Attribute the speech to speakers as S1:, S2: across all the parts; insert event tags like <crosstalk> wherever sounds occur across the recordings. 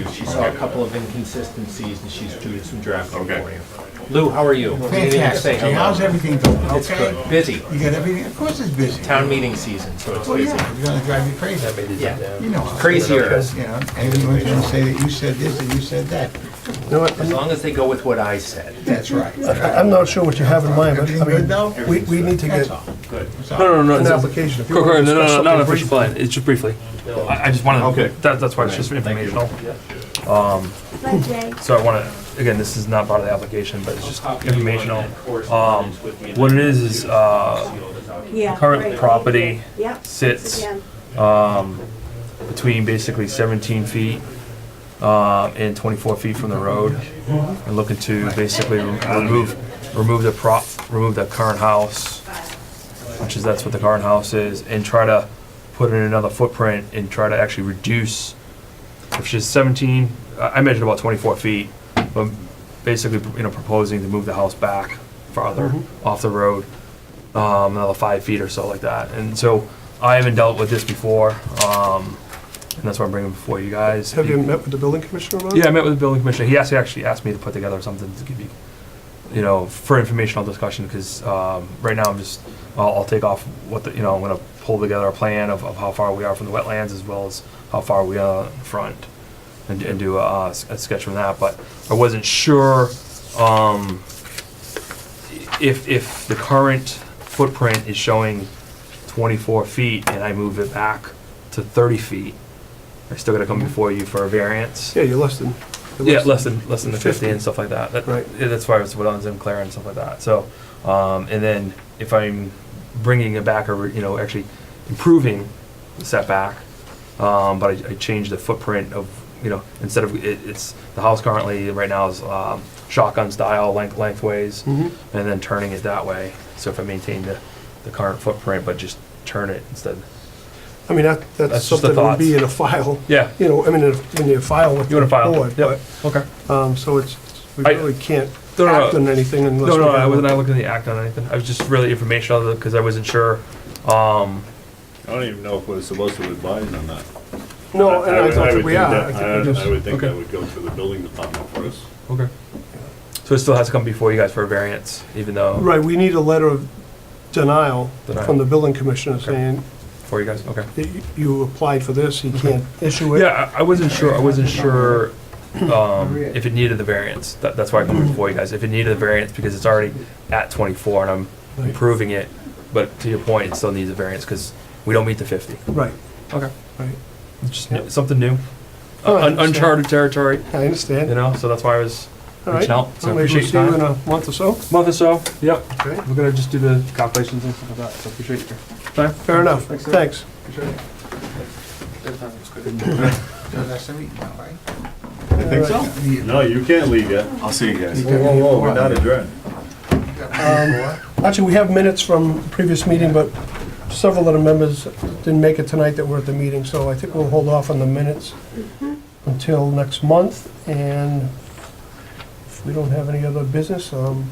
S1: saw a couple of inconsistencies, and she's doing some drafting
S2: Okay.
S1: for you. Lou, how are you? You didn't even say
S3: Fantastic. Hey,
S1: hello.
S3: how's everything going?
S1: It's
S3: Okay?
S1: good, busy.
S3: You got everything? Of course it's busy.
S1: Town meeting season, so it's
S3: Well,
S1: busy.
S3: yeah, it's gonna drive you crazy.
S1: Yeah,
S3: You know. how it
S1: crazier.
S3: is, You know, everyone's gonna say that you said this and you said that.
S4: You know what,
S1: As
S4: I'm-
S1: long as they go with what I said.
S3: That's right.
S4: I'm not sure what you have in mind, but I
S3: Everything good
S4: mean,
S3: though?
S4: we, we need to
S3: That's
S4: get
S3: all.
S1: Good.
S3: That's all.
S5: No, no, no,
S4: an
S5: no.
S4: application. If you
S5: Correct,
S4: wanna
S5: correct, No, no,
S4: discuss
S5: no, not an
S4: something
S5: official
S4: briefly-
S5: plan. It's just briefly. I, I just wanted.
S2: Okay.
S5: That, that's why it's just informational.
S6: Bye, Jay.
S5: So I want to. Again, this is not part of the application, but it's just informational. Um, what it is is uh,
S6: Yeah.
S5: current
S6: right.
S5: property
S6: Yep.
S5: sits
S6: Again.
S5: between basically 17 feet uh, and 24 feet from the road, and looking to basically remove remove the prop, remove the current house, which is that's what the current house is, and try to put in another footprint and try to actually reduce. If she's 17, I I measured about 24 feet, but basically you know proposing to move the house back farther
S4: Mm-hmm.
S5: off the road um, another five feet or so like that. And so I haven't dealt with this before, um, and that's why I'm bringing it before you guys.
S4: Have you met with the building commissioner about it?
S5: Yeah, I met with the building commissioner. He actually actually asked me to put together something to give you, you know, for informational discussion because um, right now I'm just I'll, I'll take off what the you know I'm gonna pull together a plan of, of how far we are from the wetlands as well as how far we are in front and, and do a, uh, a sketch from that. But I wasn't sure um, if if the current footprint is showing 24 feet and I move it back to 30 feet. I still gotta come before you for a variance.
S4: Yeah, you're less than. you're
S5: Yeah, less than, less than the 50
S4: 50.
S5: and stuff like that. That-
S4: Right.
S5: yeah, That's why it's what owns in Clara and stuff like that. So, um, and then if I'm bringing it back or, you know, actually improving the setback, um, but I, I changed the footprint of, you know, instead of, it, it's, the house currently, right now is, um, shotgun style length, lengthways,
S4: Mhm.
S5: and then turning it that way. So if I maintain the, the current footprint, but just turn it instead.
S4: I mean, that, that's
S5: That's just the
S4: something that would be
S5: thoughts.
S4: in a file,
S5: Yeah.
S4: you know, I mean, if- when you file with
S5: You
S4: the
S5: wanna file?
S4: board.
S5: it? Yep, okay.
S4: but, Um, so it's, we
S5: I-
S4: really can't
S5: No, no,
S4: act
S5: no.
S4: on anything unless.
S5: No,
S4: we
S5: no, I
S4: have
S5: wasn't I
S4: a-
S5: looking at the act on anything. I was just really informational because I wasn't sure. Um,
S2: I don't even know if we're supposed to advise on that.
S4: No, Oh, and I
S2: would-
S4: thought that
S2: would
S4: we
S2: think
S4: are.
S2: that-
S4: I
S2: I
S4: think we
S2: I
S4: just,
S2: would think
S5: okay.
S2: that would go through the building department first.
S5: okay. So it still has to come before you guys for a variance, even though,
S4: right, we need a letter of denial from the building commissioner saying
S5: for you guys, okay.
S4: that y- you applied for this,
S5: Mm-hmm.
S4: he can't issue it.
S5: Yeah, I I wasn't sure, I wasn't sure um, if it needed the variance. That, that's why I come before you guys. If it needed the variance, because it's already at 24 and I'm
S4: Right.
S5: improving it. But to your point, it still needs a variance because we don't meet the 50.
S4: Right,
S5: Okay.
S4: right.
S5: It's just
S4: Yep.
S5: something new,
S4: Oh, I
S5: Un-
S4: understand.
S5: uncharted territory,
S4: I understand.
S5: you know, so that's why I was
S4: All right.
S5: reaching out. So I
S4: Well, maybe we'll
S5: appreciate
S4: see
S5: your
S4: you
S5: time.
S4: in a month or so.
S5: month or so. Yep.
S4: Okay.
S5: We're gonna just do the calculations and stuff like that, so appreciate your time.
S4: Fair enough. Thanks.
S3: So that's the meeting now, right?
S2: I think so. No, you can't leave yet.
S7: I'll see you guys.
S2: Whoa, whoa, whoa, we're not adjourned.
S4: Actually, we have minutes from the previous meeting, but several of the members didn't make it tonight that were at the meeting, so I think we'll hold off on the minutes until next month, and if we don't have any other business, um,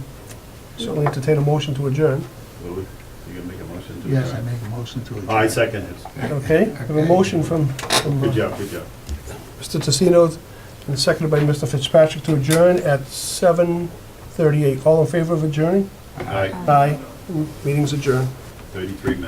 S4: certainly entertain a motion
S5: <laughs>
S4: to adjourn.
S2: Louis, you gonna make a motion to
S3: Yes, I
S2: adjourn?
S3: make a motion to adjourn.
S2: I second it.
S4: Okay? We have a motion from from,
S2: Good
S4: uh,
S2: job, good job.
S4: Mr. Tassino, and seconded by Mr. Fitzpatrick to adjourn at 7:38. All in favor of adjourning?
S2: Aye,
S4: Uh-huh. Aye. Meeting's adjourned.
S2: thirty-three minutes.